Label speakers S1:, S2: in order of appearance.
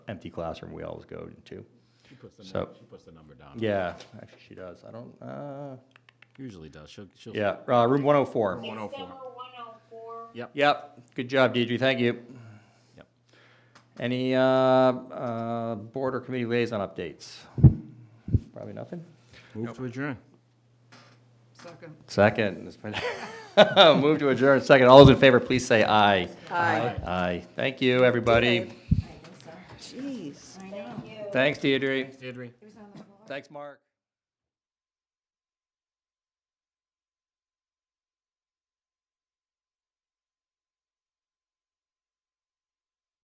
S1: empty classroom we always go into.
S2: She puts the,
S1: So-
S2: num- she puts the number down.
S1: Yeah, actually she does. I don't, uh,
S2: Usually does. She'll, she'll.
S1: yeah, uh, room one oh four.
S2: One oh
S3: It's
S2: four.
S3: number one oh four.
S2: Yep,
S1: Yep, good job, Deidre, thank you.
S2: yep.
S1: Any, uh, uh, board or committee liaison updates? Probably nothing.
S2: Move to adjourn.
S4: Second.
S1: Second, it's been- move to adjourn, second. All those in favor, please say aye.
S4: Aye.
S1: Aye, thank you, everybody.
S4: Jeez.
S3: Thank you.
S1: Thanks, Deidre.
S2: Deirdre.
S1: Thanks, Mark.